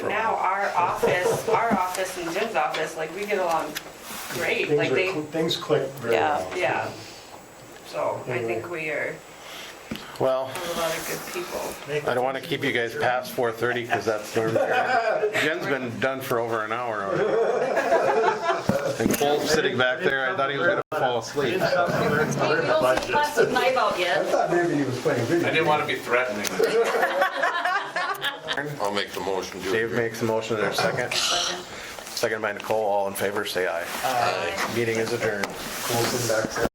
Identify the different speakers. Speaker 1: office, our office and Jim's office, like, we get along great,
Speaker 2: Things
Speaker 1: like
Speaker 2: are,
Speaker 1: they,
Speaker 2: cl- things click very
Speaker 1: yeah,
Speaker 2: well.
Speaker 1: yeah. So I
Speaker 2: Anyway.
Speaker 1: think we are
Speaker 3: Well,
Speaker 1: a lot of good people.
Speaker 3: I don't want to keep you guys past 4:30 because that's where we're Jen's been done for over an hour already. And Cole's sitting back there, I thought he was going to fall asleep.
Speaker 4: Hey, we don't see plastic knife out
Speaker 2: I
Speaker 4: yet.
Speaker 2: thought maybe he was playing video.
Speaker 5: I didn't want to be threatening.
Speaker 6: I'll make the motion to
Speaker 3: Dave
Speaker 6: adjourn.
Speaker 3: makes a motion, there's a second. Second by Nicole, all in favor, say aye. Meeting is adjourned.
Speaker 2: Colson back there.